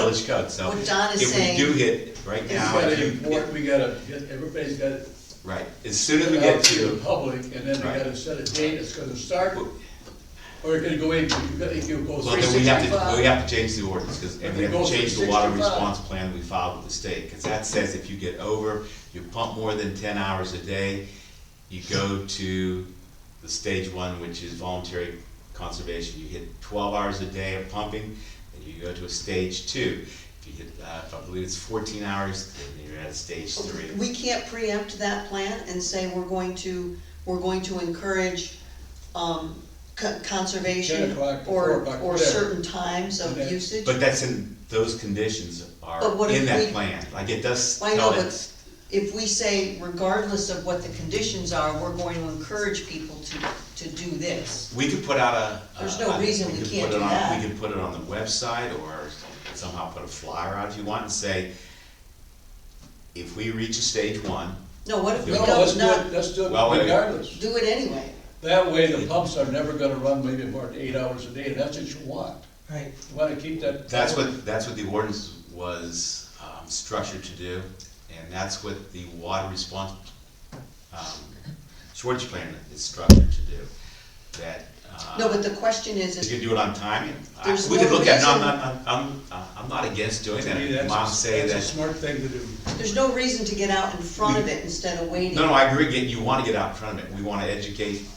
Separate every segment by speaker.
Speaker 1: village code, so.
Speaker 2: What Don is
Speaker 1: If we do
Speaker 2: saying-
Speaker 1: hit right
Speaker 3: We
Speaker 1: now,
Speaker 3: gotta
Speaker 1: if you,
Speaker 3: import, we gotta, get- everybody's gotta
Speaker 1: right, as soon as we
Speaker 3: get
Speaker 1: get
Speaker 3: out to the
Speaker 1: to,
Speaker 3: public, and then we
Speaker 1: Right.
Speaker 3: gotta set a date, it's gonna start, or it's gonna go in, you gotta, if you go
Speaker 1: well,
Speaker 3: three
Speaker 1: then we have to, we
Speaker 3: sixty-five.
Speaker 1: have to change the ordinance, because, and we
Speaker 3: If
Speaker 1: have
Speaker 3: it
Speaker 1: to
Speaker 3: goes to
Speaker 1: change the water
Speaker 3: 65.
Speaker 1: response plan we filed with the state, because that says if you get over, you pump more than ten hours a day, you go to the stage one, which is voluntary conservation, you hit twelve hours a day of pumping, then you go to a stage two. If you hit, uh, if I believe it's fourteen hours, then you're at a stage three.
Speaker 2: We can't preempt that plan and say we're going to, we're going to encourage, um, co-
Speaker 3: Ten
Speaker 2: conservation
Speaker 3: o'clock to four
Speaker 2: or,
Speaker 3: o'clock,
Speaker 2: or
Speaker 3: whatever.
Speaker 2: certain times of
Speaker 3: Okay.
Speaker 2: usage.
Speaker 1: But that's in, those conditions are
Speaker 2: But what
Speaker 1: in
Speaker 2: if
Speaker 1: that
Speaker 2: we-
Speaker 1: plan, like it does
Speaker 2: I know,
Speaker 1: tell
Speaker 2: but
Speaker 1: it,
Speaker 2: if we say regardless of what the conditions are, we're going to encourage people to, to do this.
Speaker 1: we could put out a.
Speaker 2: There's
Speaker 1: a-
Speaker 2: no
Speaker 1: I-
Speaker 2: reason we
Speaker 1: could
Speaker 2: can't
Speaker 1: put it
Speaker 2: do
Speaker 1: on-
Speaker 2: that.
Speaker 1: We could put it on the website or somehow put a flyer out if you want and say, if we reach a stage one,
Speaker 2: No, what if we
Speaker 1: No,
Speaker 3: No, let's
Speaker 2: don't,
Speaker 3: do it,
Speaker 2: not,
Speaker 3: let's do it
Speaker 1: Well, wait.
Speaker 3: regardless,
Speaker 2: do it anyway?
Speaker 3: that way the pumps are never gonna run maybe more than eight hours a day, and that's what you want.
Speaker 4: Right.
Speaker 3: You wanna keep that.
Speaker 1: that's what, that's what the ordinance was, um, structured to do. And that's what the water response, um, shortage plan is structured to do, that, uh.
Speaker 2: No, but the question is,
Speaker 1: You
Speaker 2: is
Speaker 1: can do it on timing. I-
Speaker 2: There's
Speaker 1: We could
Speaker 2: no
Speaker 1: look at, it. no, I'm
Speaker 2: reason-
Speaker 1: not, I'm- I'm, uh, I'm not against doing
Speaker 3: To me,
Speaker 1: that.
Speaker 3: that's-
Speaker 1: Mom say
Speaker 3: That's a
Speaker 1: that,
Speaker 3: smart thing to do.
Speaker 2: there's no reason to get out in front of it instead of waiting.
Speaker 1: no, no, I agree, get- you wanna get out in front of it, we wanna educate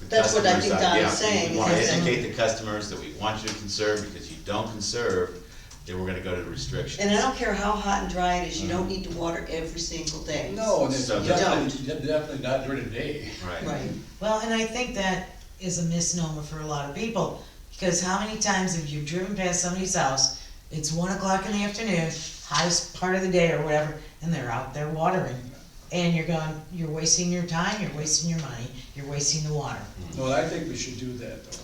Speaker 1: the
Speaker 2: That's what I
Speaker 1: customers
Speaker 2: think
Speaker 1: out-
Speaker 2: Don
Speaker 1: yeah,
Speaker 2: is saying,
Speaker 1: We wanna
Speaker 2: is that-
Speaker 1: educate the customers that we want you to conserve, because you don't conserve, then we're gonna go to the
Speaker 2: And I
Speaker 1: restrictions.
Speaker 2: don't care how hot and dry it is, you don't need to water every single day.
Speaker 3: No, and it's
Speaker 1: So-
Speaker 3: definitely, definitely not during the day.
Speaker 1: Right,
Speaker 4: Right, well, and I think that is a misnomer for a lot of people, because how many times have you driven past somebody's house, it's one o'clock in the afternoon, hottest part of the day or whatever, and they're out there watering, and you're going, you're wasting your time, you're wasting your money, you're wasting the water.
Speaker 3: No, I think we should do that, though.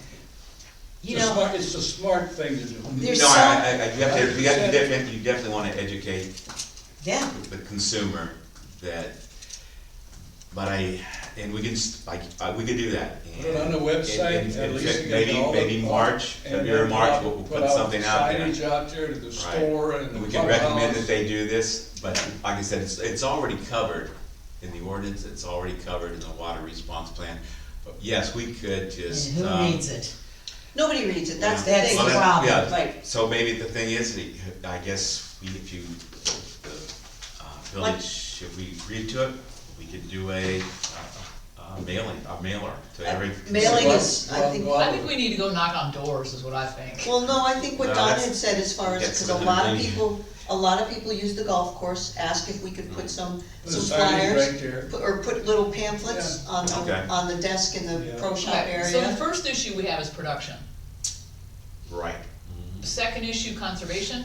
Speaker 4: You
Speaker 3: It's a
Speaker 4: know,
Speaker 3: smart- It's a smart thing to do.
Speaker 4: There's
Speaker 1: No, I, I, I- you have to, you have to
Speaker 3: 100%.
Speaker 1: definitely, you definitely wanna educate
Speaker 4: yeah,
Speaker 1: the consumer that, but I, and we can, s- like, uh, we could do that.
Speaker 3: Put it on the
Speaker 1: And-
Speaker 3: website,
Speaker 1: and-
Speaker 3: at
Speaker 1: and
Speaker 3: least you got
Speaker 1: Maybe,
Speaker 3: all the-
Speaker 1: maybe March,
Speaker 3: and then
Speaker 1: February, March, we'll, we'll
Speaker 3: put
Speaker 1: put something out there.
Speaker 3: Signage out there to the
Speaker 1: Right.
Speaker 3: store and the
Speaker 1: We can recommend that
Speaker 3: clubhouse.
Speaker 1: they do this, but like I said, it's, it's already covered in the ordinance, it's already covered in the water response plan. But yes, we could
Speaker 4: and
Speaker 1: just,
Speaker 4: who
Speaker 1: um.
Speaker 4: needs it?
Speaker 2: Nobody reads it, that's the
Speaker 4: That's
Speaker 2: thing.
Speaker 1: well, that-
Speaker 4: problem,
Speaker 1: yeah,
Speaker 2: right.
Speaker 1: So maybe the thing is, that I guess, we- if you, the, uh, village, if we agreed to it, we could do a, uh, uh, mailing, a mailer to every.
Speaker 2: Mailing
Speaker 1: consumer.
Speaker 2: is, I think,
Speaker 3: Well,
Speaker 2: well,
Speaker 5: I think we need to go knock on doors, is what I think.
Speaker 2: no, I think what
Speaker 1: No,
Speaker 2: Don
Speaker 1: that's-
Speaker 2: had said as far as,
Speaker 1: that's
Speaker 2: because a
Speaker 1: what
Speaker 2: lot
Speaker 1: I'm
Speaker 2: of
Speaker 1: thinking.
Speaker 2: people, a lot of people use the golf course, ask if we could
Speaker 1: Mm.
Speaker 2: put some,
Speaker 3: Put a
Speaker 2: some
Speaker 3: signage right
Speaker 2: flyers.
Speaker 3: there.
Speaker 2: pu- Or put little pamphlets on,
Speaker 1: Okay.
Speaker 2: the on the desk in the
Speaker 3: Yeah.
Speaker 2: pro shop
Speaker 5: Okay, So the
Speaker 2: area.
Speaker 5: first issue we have is production.
Speaker 1: Right.
Speaker 5: The second issue, conservation.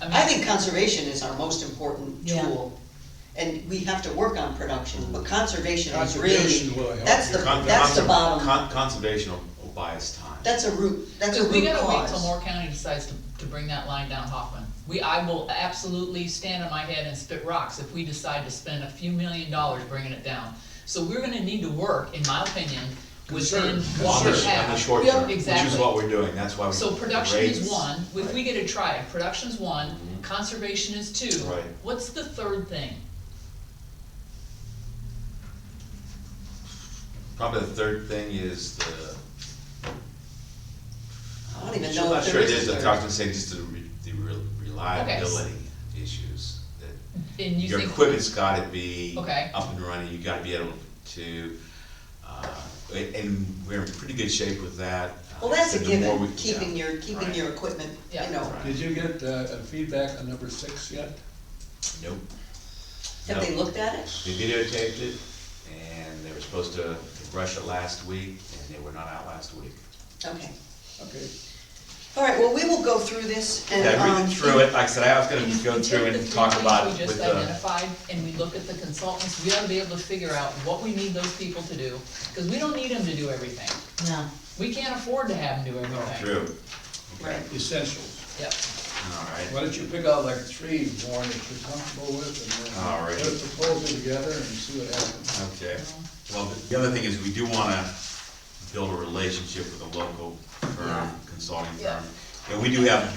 Speaker 5: mean,
Speaker 2: I think conservation is our most important
Speaker 4: Yeah.
Speaker 2: tool. And we have to work on production, but conservation is
Speaker 3: Conservation will
Speaker 2: really,
Speaker 3: help
Speaker 2: that's the,
Speaker 3: you.
Speaker 1: Con-
Speaker 2: that's the
Speaker 1: conser-
Speaker 2: bottom,
Speaker 1: con- Conservation will will buy us time.
Speaker 2: that's a root, that's a
Speaker 5: Because
Speaker 2: root cause.
Speaker 5: we gotta wait till Moore County decides to, to bring that line down Hoffman. We, I will absolutely stand on my head and spit rocks if we decide to spend a few million dollars bringing it down. So we're gonna need to work, in my opinion, within
Speaker 3: Conserve,
Speaker 5: what
Speaker 1: On the,
Speaker 5: we
Speaker 3: conserve.
Speaker 1: on
Speaker 5: have.
Speaker 1: the short
Speaker 5: Yep,
Speaker 1: term, which is
Speaker 5: exactly.
Speaker 1: what we're doing, that's why we.
Speaker 5: So production is
Speaker 1: raise-
Speaker 5: one, if we
Speaker 1: Right. Mm-hmm.
Speaker 5: get a try, it, production's one, conservation is two.
Speaker 1: Right.
Speaker 5: What's the third thing?
Speaker 1: Probably the third thing is the.
Speaker 2: I don't even
Speaker 1: I'm
Speaker 2: know
Speaker 1: not
Speaker 2: if
Speaker 1: sure it
Speaker 2: there
Speaker 1: is,
Speaker 2: is a
Speaker 1: I was
Speaker 2: third.
Speaker 1: gonna say just the re- the re- reliability issues. that
Speaker 5: And you
Speaker 1: Your
Speaker 5: think,
Speaker 1: equipment's gotta be
Speaker 5: Okay.
Speaker 1: up and running, you gotta be able to, uh, and we're in pretty good shape with that.
Speaker 2: Well, that's a
Speaker 1: The more
Speaker 2: given,
Speaker 1: we-
Speaker 2: keeping
Speaker 1: yeah,
Speaker 2: your, keeping
Speaker 1: right.
Speaker 2: your equipment, you
Speaker 5: Yeah.
Speaker 2: know.
Speaker 1: Right.
Speaker 3: Did you get, uh, feedback on number six yet?
Speaker 1: Nope.
Speaker 2: Have
Speaker 1: Nope.
Speaker 2: they looked at it?
Speaker 1: They videotaped it, and they were supposed to rush it last week, and they were not out last week.
Speaker 2: Okay.
Speaker 3: Okay.
Speaker 2: All right, well, we will go through this and,
Speaker 1: Yeah, I
Speaker 2: um.
Speaker 1: read through it, like I said, I was
Speaker 5: if
Speaker 1: gonna
Speaker 5: we
Speaker 1: go
Speaker 5: take
Speaker 1: through
Speaker 5: the
Speaker 1: and
Speaker 5: three
Speaker 1: talk
Speaker 5: things
Speaker 1: about
Speaker 5: we
Speaker 1: it with
Speaker 5: just
Speaker 1: the,
Speaker 5: identified, and we look at the consultants, we ought to be able to figure out what we need those people to do, because we don't need them to do everything.
Speaker 4: No,
Speaker 5: We can't afford to have them
Speaker 1: Oh,
Speaker 5: do everything.
Speaker 1: through,
Speaker 2: Right.
Speaker 3: Essentials.
Speaker 5: Yep,
Speaker 1: alright.
Speaker 3: Why don't you pick out like three, Warren, that you're comfortable with, and then
Speaker 1: All right.
Speaker 3: put a proposal together and see what happens.
Speaker 1: Okay, well, the- the other thing is, we do wanna build a relationship with a local firm, consulting
Speaker 5: Yeah.
Speaker 1: firm, and we do have